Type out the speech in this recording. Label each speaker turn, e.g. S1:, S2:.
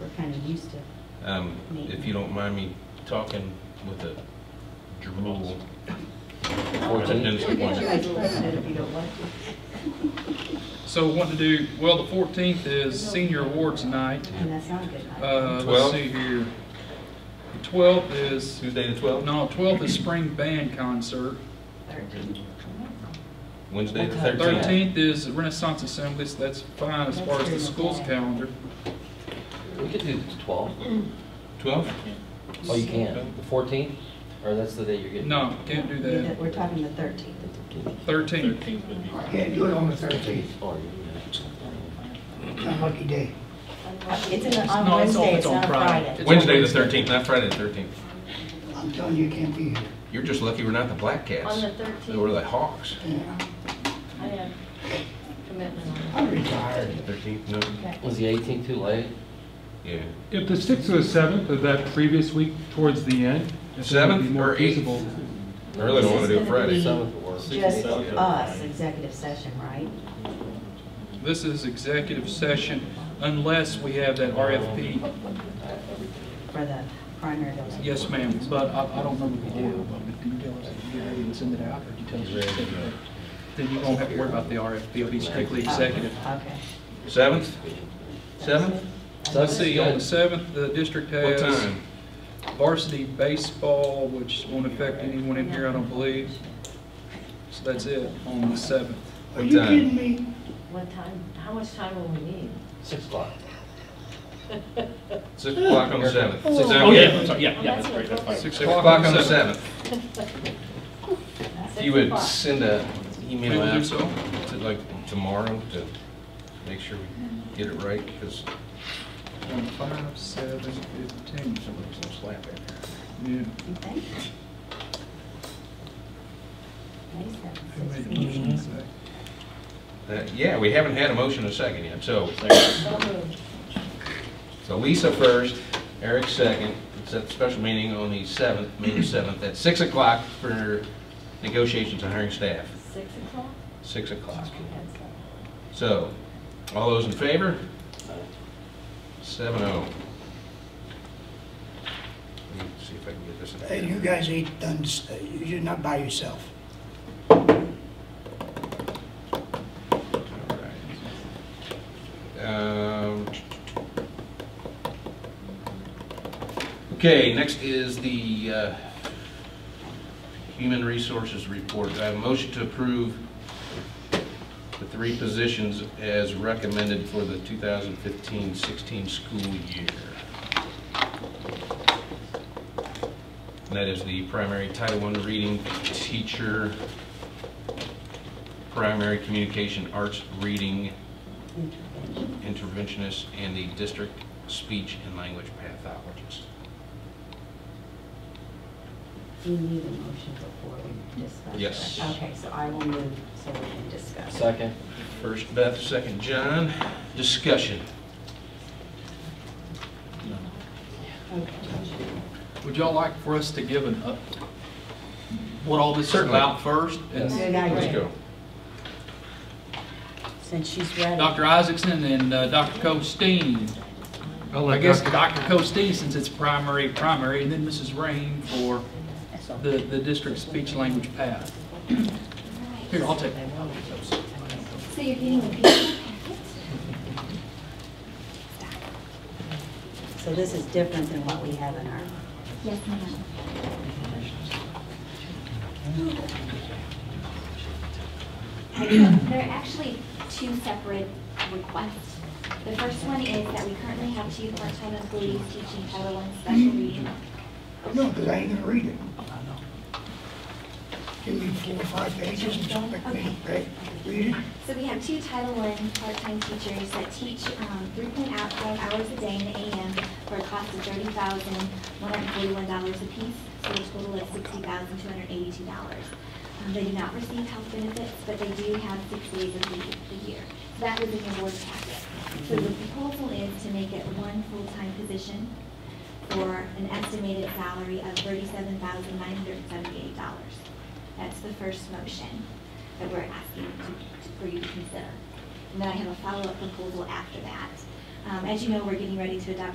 S1: we're kind of used to.
S2: Um, If you don't mind me talking with a drool.
S3: Fourteen.
S1: Look at you as president if you don't like to.
S4: So what to do, well, the fourteenth is senior awards night.
S1: And that's not a good idea.
S4: Uh, let's
S2: Twelve?
S4: see here. The twelfth is,
S2: Tuesday the 12th?
S4: no, twelfth is spring band concert.
S1: Thirteen.
S2: Wednesday the
S3: What time?
S2: 13th?
S4: Thirteenth is Renaissance Assembly, so that's fine as far as the school's calendar.
S3: We could do twelve.
S2: 12?
S3: Oh, you can. The fourteenth, or that's the day you're getting.
S4: No, can't do
S1: Yeah, that-
S4: that.
S1: We're talking the thirteenth.
S4: Thirteenth,
S5: I can't do it on the thirteenth,
S3: Or you
S5: lucky day.
S1: It's in the- on
S4: No, it's on-
S1: Wednesday,
S4: it's
S1: it's
S4: on
S1: not
S4: Friday.
S1: Friday.
S4: It's
S2: Wednesday the
S4: Wednesday.
S2: 13th, not Friday the 13th.
S5: I'm telling you, you can't be here.
S2: You're just lucky we're not the Black
S6: On
S2: Cats
S6: the
S2: or
S6: thirteenth,
S2: the Hawks.
S5: Yeah,
S6: I have commitment on
S5: I'm retired.
S2: 13th, no?
S3: can. Was the eighteenth too late?
S2: Yeah.
S7: If the sixth or the seventh of that previous week towards the end, if that would be
S2: Seventh
S7: more
S2: or eighth?
S7: feasible.
S2: I really don't want to do it Friday.
S3: Seventh would work.
S1: Just uh, us, executive session, right?
S4: this is executive session unless we have that RFP.
S1: For the primary building.
S4: Yes, ma'am, but I, I don't remember the order, but if you tell us that you get ready to send it out, or you tell us you send it out, then you won't have to worry about the RFP, it'll be strictly
S1: Oh,
S4: executive.
S1: Okay.
S2: 7th? 7th?
S4: Let's see, on the seventh, the district
S2: What
S4: has.
S2: time?
S4: varsity baseball, which won't affect anyone in here, I don't believe. So that's it on the seventh.
S5: Are
S2: What
S5: you
S2: time?
S5: kidding me?
S6: What time, how much time will we need?
S3: Six o'clock.
S2: 6 o'clock on the 7th.
S3: Oh.
S2: Sound
S8: Oh,
S2: good?
S8: yeah, I'm sorry, yeah, yeah, that's great, that's fine.
S4: Six
S2: 6 o'clock on the
S4: 7th.
S2: 7th. If you would
S6: Six
S2: send a
S4: We
S2: email
S4: will do
S2: out
S4: so.
S2: to like tomorrow to make sure we get it right, because
S4: On five, seven, fifteen.
S2: somebody's gonna slap it.
S4: Yeah.
S1: You think? May
S4: I
S1: seventh,
S4: made
S1: six.
S4: a motion to say.
S2: Uh, Yeah, we haven't had a motion in a second yet, so,
S6: o'clock. So moved.
S2: so Lisa first, Eric second, it's at the special meeting on the seventh, May seventh, at six o'clock for negotiations on hiring staff,
S6: Six o'clock?
S2: six o'clock.
S6: That's all.
S2: So, all those in favor? Seven oh. Let me see if I can get this. in.
S5: Hey, you guys ain't done, s- you're not by yourself.
S2: Alright. Um, Okay, next is the uh, Human Resources Report. Do I have a motion to approve the three positions as recommended for the 2015-16 school year. And that is the primary Title I reading teacher, primary communication arts reading interventionist, and the district speech and language pathologist.
S1: Do you need a motion before we discuss?
S2: Yes.
S1: that? Okay, so I will move so we can discuss.
S3: Second.
S2: First Beth, second John. Discussion.
S1: Okay.
S4: Would y'all like for us to give an, up- what all this is
S2: Certainly.
S4: about first? And
S1: Good
S2: Let's
S1: idea,
S2: go.
S1: since she's ready.
S4: Dr. Isaacson and uh, Dr. Costin.
S7: I'll let
S4: I guess
S7: Dr.
S4: Dr. Costin, since it's primary, primary, and then Mrs. Rain for the, the district speech language path. Here, I'll take that.
S6: So you're getting a pizza?
S1: So this is different than what we have in our,
S6: Yes, ma'am.
S9: There are actually two separate requests. The first one is that we currently have two part-time employees teaching Title I special reading.
S5: No, because I ain't gonna read it. Give me four or five pages and expect me to re- read it.
S9: So we have two Title I part-time teachers that teach um, 3.5 hours a day in the AM for a cost of $30,141 apiece, so a total of $60,282. Um, They do not receive health benefits, but they do have six days of leave a year. So That was in your board packet. So the proposal is to make it one full-time position for an estimated salary of $37,978. That's the first motion that we're asking to- for you to consider. And then I have a follow-up proposal after that. Um, As you know, we're getting ready to adopt